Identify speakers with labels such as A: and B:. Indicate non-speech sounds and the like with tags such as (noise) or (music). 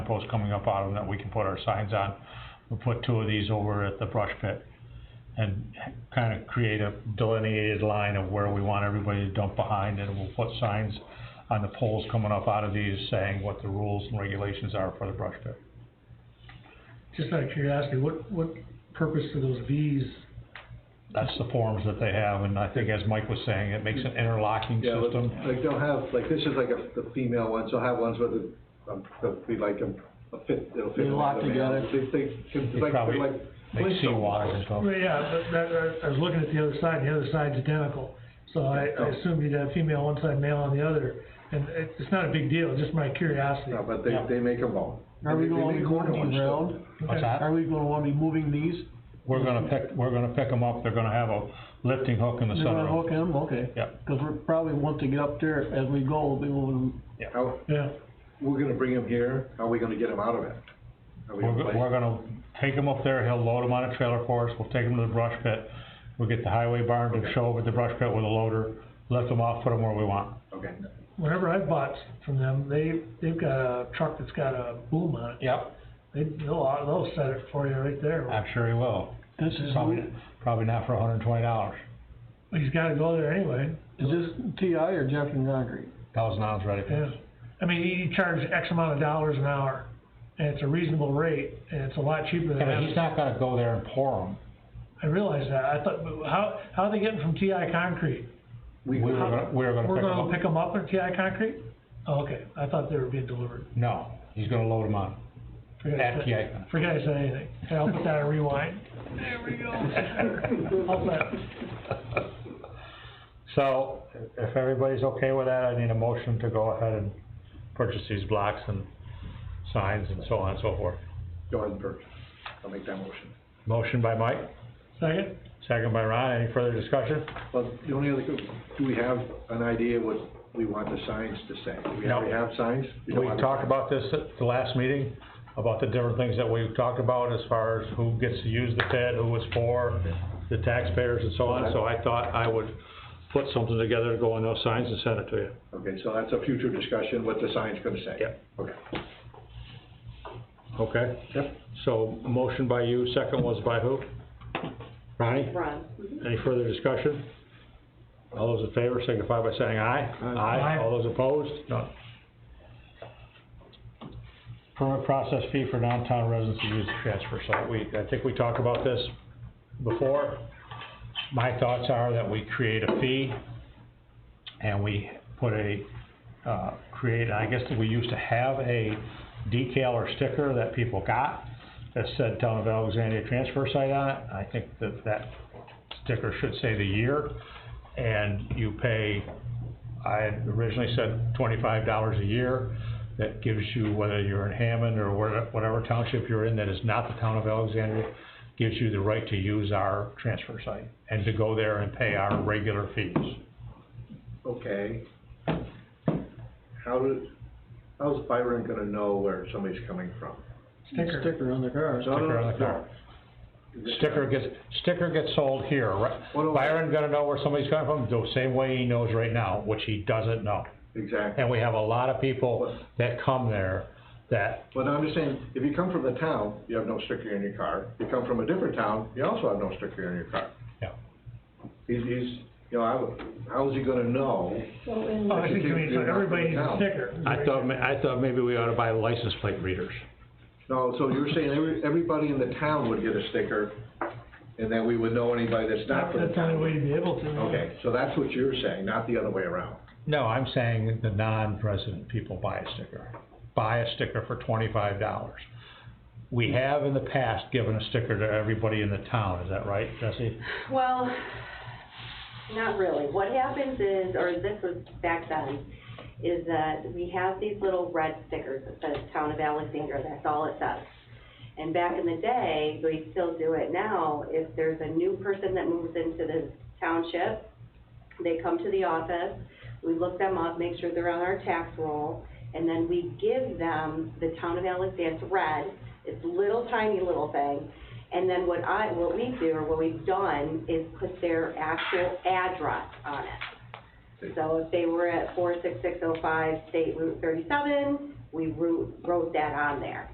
A: posts coming up out of them that we can put our signs on. We'll put two of these over at the brush pit and kind of create a delineated line of where we want everybody to dump behind, and we'll put signs on the poles coming up out of these saying what the rules and regulations are for the brush pit.
B: Just out of curiosity, what, what purpose do those Vs,
A: That's the forms that they have, and I think as Mike was saying, it makes an interlocking
C: Yeah, but,
A: system.
C: like, they'll have, like, this is like a, the female ones, they'll have ones where the, um, they'll be like, um, a fit, it'll fit.
D: They lock
C: another male.
D: together.
C: They, they, it's
A: They
C: like,
A: probably
C: they're like.
A: Make
C: Flintstone
A: seawalls
C: models.
A: and stuff.
B: well, yeah, but that, I- I was looking at the other side, and the other side's identical. So I, I assume you'd have female on one side, male on the other, and it, it's not a big deal, just my curiosity.
C: No, but they,
A: Yeah.
C: they make them all.
D: Are we
C: They- they
D: gonna be
C: make corner
D: moving
C: ones, too.
D: around?
A: What's that?
D: Are we gonna wanna be moving these?
A: We're gonna pick, we're gonna pick them up, they're gonna have a lifting hook in the
D: They're gonna
A: sunroof.
D: hook them, okay.
A: Yep.
D: Cause we're probably, once they get up there, as we go, we'll be moving them.
C: How,
B: Yeah,
C: we're gonna bring them here, how are we gonna get them out of it? Are we
A: We're,
C: gonna
A: go-
C: place-
A: we're gonna take them up there, he'll load them on a trailer for us, we'll take them to the brush pit. We'll get the highway barn to show up at the brush pit with a loader, lift them off, put them where we want.
C: Okay,
B: whenever I've bought from them, they, they've got a truck that's got a boom on it.
A: Yep.
B: They, they'll, they'll set it for you right there.
A: I'm sure he will.
D: This is,
A: Probably, probably not for hundred and twenty dollars.
B: But he's gotta go there anyway,
D: is this TI or Jeff and Concrete?
A: Thousand dollars ready for
B: yeah. I mean, you- you charge X amount of dollars an hour, and it's a reasonable rate, and it's a lot cheaper than.
A: Yeah, but
B: having-
A: he's not gonna go there and pour them.
B: I realize that. I thought, but how, how are they getting from TI Concrete?
C: we,
A: We were
C: go-
A: gonna, we were gonna
B: We're
A: pick
B: gonna
A: them up.
B: pick them up at TI Concrete? Oh, okay. I thought they were being delivered.
A: No, he's gonna load them on.
B: Forget I
A: At
B: said-
A: TI Concrete.
B: Forget I said anything. Okay, I'll put that on rewind. There we go. I'll put-
A: (laughs) So, if everybody's okay with that, I need a motion to go ahead and purchase these blocks and signs and so on and so forth.
C: go ahead and purchase, I'll make that motion.
A: Motion by Mike,
B: Second?
A: second by Ron, any further discussion?
C: Well, the only other, do we have an idea what we want the signs to say? Do we
A: No.
C: already have signs?
A: We
C: don't have a
A: talked
C: sign.
A: about this at the last meeting, about the different things that we've talked about as far as who gets to use the TED, who it's for, the taxpayers and so on, so I thought I would put something together to go on those signs and send it to you.
C: Okay, so that's a future discussion, what the sign's gonna say?
A: Yep.
C: Okay.
A: Okay?
C: Yep.
A: So, motion by you, second was by who? Ronnie?
E: Ron.
A: Any further discussion? All those in favor signify by saying aye.
B: Aye.
A: All those opposed? None. Permit process fee for downtown residents to use the transfer site. We, I think we talked about this before. My thoughts are that we create a fee and we put a, uh, create, I guess that we used to have a decal or sticker that people got that said Town of Alexandria Transfer Site on it. I think that that sticker should say the year, and you pay, I had originally said twenty-five dollars a year. That gives you, whether you're in Hammond or where- whatever township you're in that is not the town of Alexandria, gives you the right to use our transfer site and to go there and pay our regular fees.
C: Okay. How do, how's Byron gonna know where somebody's coming from?
B: Sticker.
D: Sticker on the car.
C: No, no,
A: Sticker on the
C: no.
A: car. Sticker gets, sticker gets sold here, right?
C: Well, no.
A: Byron gonna know where somebody's coming from the same way he knows right now, which he doesn't know.
C: Exactly,
A: And we have a lot of people that come there that,
C: but I'm just saying, if you come from the town, you have no sticker in your car, you come from a different town, you also have no sticker in your car.
A: Yeah.
C: He's, he's, you know, I, would- how's he gonna know?
E: Well, in
B: Oh, I think you mean, so everybody needs a sticker.
A: I thought, ma- I thought maybe we ought to buy license plate readers.
C: No, so you're saying every, everybody in the town would get a sticker, and then we would know anybody that's not
B: That's
C: from the
B: the only way
C: town?
B: to be able to.
C: Okay, so that's what you're saying, not the other way around.
A: No, I'm saying the non-resident people buy a sticker. Buy a sticker for twenty-five dollars. We have in the past given a sticker to everybody in the town, is that right, Jesse?
E: Well, not really. What happens is, or this was back then, is that we have these little red stickers that says Town of Alexandria, that's all it says. And back in the day, we still do it now, if there's a new person that moves into the township, they come to the office, we look them up, make sure they're on our tax roll, and then we give them the Town of Alexandria, it's red, it's little tiny little thing, and then what I, what we do, or what we've done, is put their actual address on it. So if they were at four six six oh five State Route thirty-seven, we wrote, wrote that on there.